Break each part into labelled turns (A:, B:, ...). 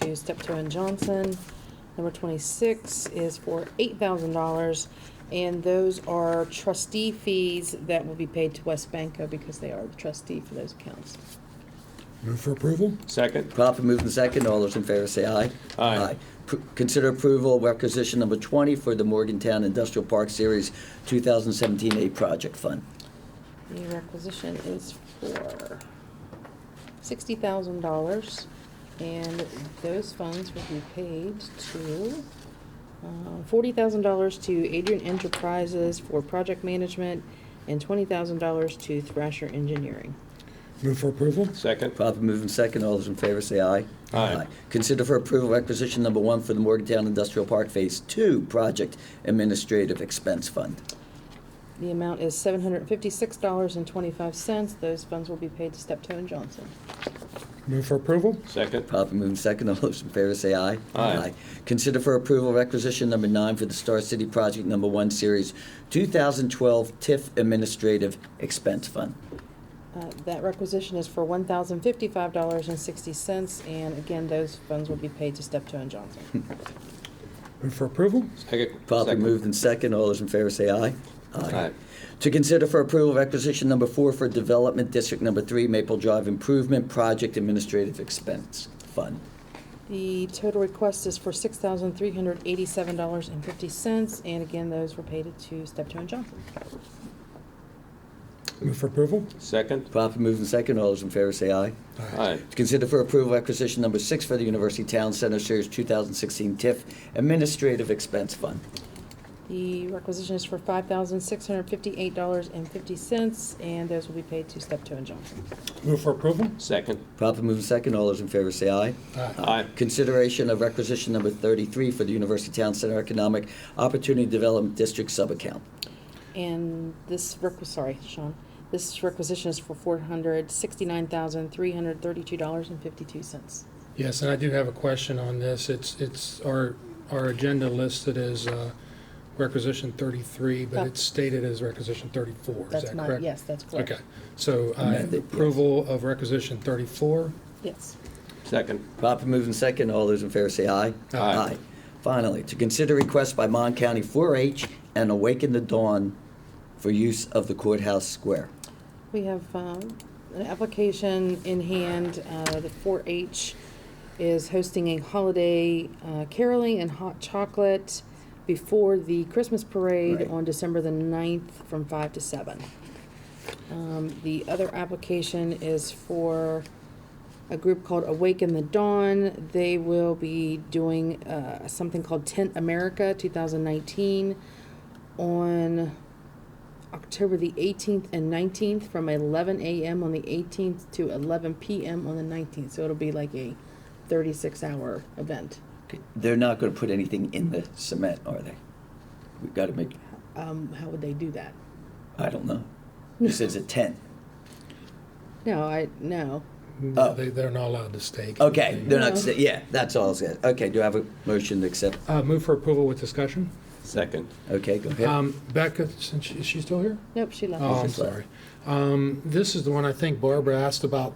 A: to Step Two and Johnson. Number twenty-six is for eight thousand dollars, and those are trustee fees that will be paid to West Banco because they are the trustee for those accounts.
B: Move for approval?
C: Second?
D: Proper moved in second. All those in favor say aye.
C: Aye.
D: P- Consider approval of requisition number 20 for the Morgantown Industrial Park Series 2017 A Project Fund.
A: The requisition is for sixty thousand dollars, and those funds will be paid to uh, forty thousand dollars to Adrian Enterprises for project management, and twenty thousand dollars to Thrasher Engineering.
B: Move for approval?
C: Second?
D: Proper moved in second. All those in favor say aye.
C: Aye.
D: Consider for approval requisition number one for the Morgantown Industrial Park Phase 2 Project Administrative Expense Fund.
A: The amount is seven hundred and fifty-six dollars and twenty-five cents. Those funds will be paid to Steptoe and Johnson.
B: Move for approval?
C: Second?
D: Proper moved in second. All those in favor say aye.
C: Aye.
D: Consider for approval requisition number nine for the Star City Project Number One Series 2012 TIF Administrative Expense Fund.
A: Uh, That requisition is for one thousand fifty-five dollars and sixty cents, and again, those funds will be paid to Steptoe and Johnson.
B: Move for approval?
C: Second?
D: Properly
C: Second.
D: moved and second. All those in favor say aye.
C: Aye.
D: To consider for approval requisition number four for Development District Number Three Maple Drive Improvement Project Administrative Expense Fund.
A: The total request is for six thousand three hundred eighty-seven dollars and fifty cents, and again, those were paid to Steptoe and Johnson.
B: Move for approval?
C: Second?
D: Properly moved and second. All those in favor say aye.
C: Aye.
D: To consider for approval requisition number six for the University Town Center Series 2016 TIF Administrative Expense Fund.
A: The requisition is for five thousand six hundred fifty-eight dollars and fifty cents, and those will be paid to Steptoe and Johnson.
B: Move for approval?
C: Second?
D: Properly moved and second. All those in favor say aye.
E: Uh,
C: Aye.
D: Consideration of requisition number 33 for the University Town Center Economic Opportunity Development District Subaccount.
A: And this requ- sorry, Sean, this requisition is for four hundred sixty-nine thousand, three hundred thirty-two dollars and fifty-two cents.
E: Yes, and I do have a question on this. It's, it's, our, our agenda listed as uh, requisition 33,
A: Oh.
E: but it's stated as requisition 34. Is
A: That's
E: that
A: not,
E: correct?
A: yes, that's correct.
E: Okay, so I have
D: Amended, yes.
E: approval of requisition 34.
A: Yes.
C: Second?
D: Proper move in second. All those in favor say aye.
C: Aye.
D: Finally, to consider requests by Mon County 4-H and Awaken the Dawn for use of the courthouse square.
A: We have um, an application in hand. Uh, The 4-H is hosting a holiday uh, caroling and hot chocolate before the Christmas parade
D: Right.
A: on December the 9th from 5 to 7. Um, The other application is for a group called Awaken the Dawn. They will be doing uh, something called Tent America 2019 on October the 18th and 19th from 11 a.m. on the 18th to 11 p.m. on the 19th. So it'll be like a 36 hour event.
D: They're not going to put anything in the cement, are they? We've got to make,
A: Um, how would they do that?
D: I don't know. This is a tent.
A: No, I no.
D: Oh.
E: Mm, They, they're not allowed to stake.
D: Okay,
E: anything.
D: they're not,
A: No.
D: sta- yeah, that's all I said. Okay, do I have a motion to accept?
E: Uh, Move for approval with discussion.
C: Second?
D: Okay, go ahead.
E: Um, Becca, since she- is she still here?
A: Nope, she left.
E: Oh, I'm
D: Office letter.
E: sorry. Um, This is the one I think Barbara asked about,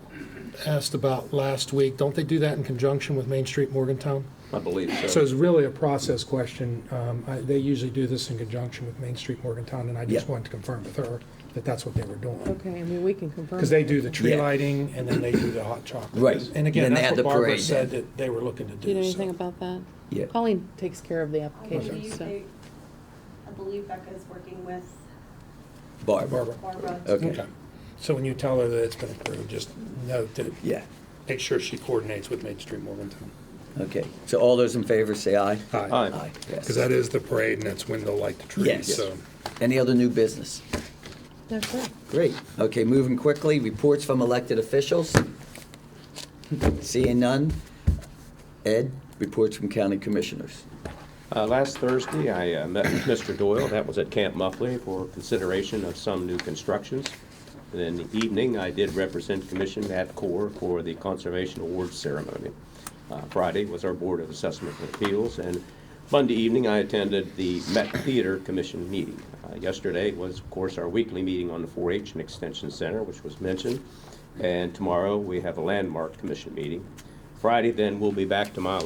E: asked about last week. Don't they do that in conjunction with Main Street Morgantown?
C: I believe
E: So it's really a process question. Um, I- They usually do this in conjunction with Main Street Morgantown, and I just
D: Yeah.
E: wanted to confirm with her that that's what they were doing.
A: Okay, I mean we can confirm.
E: Because they do the tree
D: Yeah.
E: lighting, and then they do the hot chocolate.
D: Right.
E: And
D: Then
E: again,
D: they have
E: that's
D: the
E: what Barbara
D: parade
E: said
D: then.
E: that they were looking to do.
A: Do you know
E: so-
A: anything about that?
D: Yeah.
A: Colleen takes care of the
F: I
A: application.
F: believe
A: So
F: they, I believe Becca's working with
D: Barb.
E: Barbara.
F: Barbara.
D: Okay,
E: Okay. So when you tell her that it's been approved, just note that,
D: yeah,
E: make sure she coordinates with Main Street Morgantown.
D: okay. So all those in favor say aye.
C: Aye.
D: Aye. yes.
E: Because that is the parade, and that's when they'll light the
D: Yes.
E: trees, so.
D: Any other new business?
A: no, sure.
D: Great. Okay, moving quickly, reports from elected officials. Seeing none. Ed, reports from county commissioners.
C: Uh, Last Thursday, I uh, met with Mr. Doyle, that was at Camp Muffley, for consideration of some new constructions. And in the evening, I did represent Commission at Core for the Conservation Awards Ceremony. Uh, Friday was our Board of Assessment and Appeals, and Monday evening, I attended the Met Theater Commission meeting. Uh, Yesterday was, of course, our weekly meeting on the 4-H and Extension Center, which was mentioned, and tomorrow, we have a Landmark Commission meeting. Friday, then we'll be back tomorrow